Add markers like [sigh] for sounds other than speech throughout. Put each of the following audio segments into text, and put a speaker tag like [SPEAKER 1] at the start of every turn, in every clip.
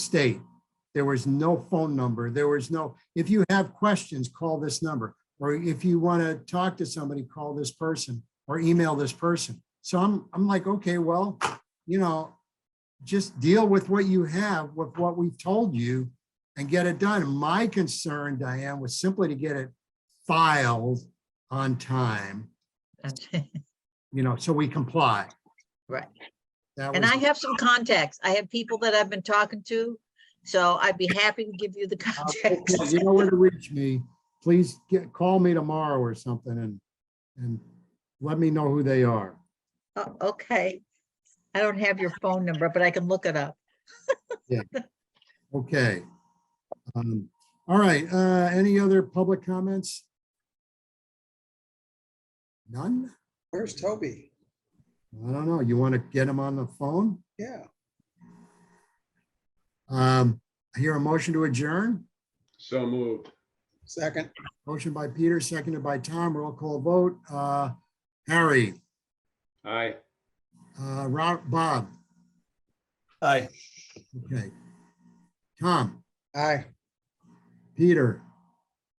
[SPEAKER 1] state. There was no phone number. There was no, if you have questions, call this number. Or if you want to talk to somebody, call this person or email this person. So I'm, I'm like, okay, well, you know, just deal with what you have, with what we've told you and get it done. My concern, Diane, was simply to get it filed on time,
[SPEAKER 2] Okay.
[SPEAKER 1] you know, so we comply.
[SPEAKER 2] Right.
[SPEAKER 1] That
[SPEAKER 2] And
[SPEAKER 1] was-
[SPEAKER 2] I have some contacts. I have people that I've been talking to, so I'd be happy to give you the contacts. [laughs]
[SPEAKER 1] You know where to reach me. Please get, call me tomorrow or something and, and let me know who they are.
[SPEAKER 2] O- Oh, Okay. I don't have your phone number, but I can look it up.
[SPEAKER 1] Okay. Um, All right, uh, any other public comments? None?
[SPEAKER 3] Where's Toby?
[SPEAKER 1] I don't know. You want to get them on the phone?
[SPEAKER 3] Yeah,
[SPEAKER 1] Um, I hear a motion to adjourn.
[SPEAKER 4] So moved.
[SPEAKER 3] second,
[SPEAKER 1] Motion by Peter, seconded by Tom. Roll call vote. Uh, Harry,
[SPEAKER 4] Aye.
[SPEAKER 1] uh, Rob, Bob.
[SPEAKER 5] Aye.
[SPEAKER 1] Okay. Tom,
[SPEAKER 3] aye.
[SPEAKER 1] Peter.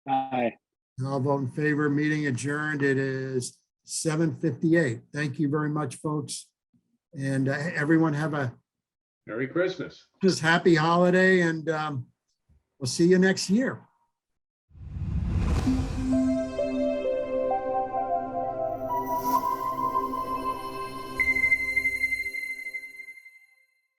[SPEAKER 5] Aye.
[SPEAKER 1] I'll vote in favor. Meeting adjourned. It is seven fifty-eight. Thank you very much, folks. And uh, everyone have a
[SPEAKER 4] Merry Christmas.
[SPEAKER 1] just happy holiday and um, we'll see you next year.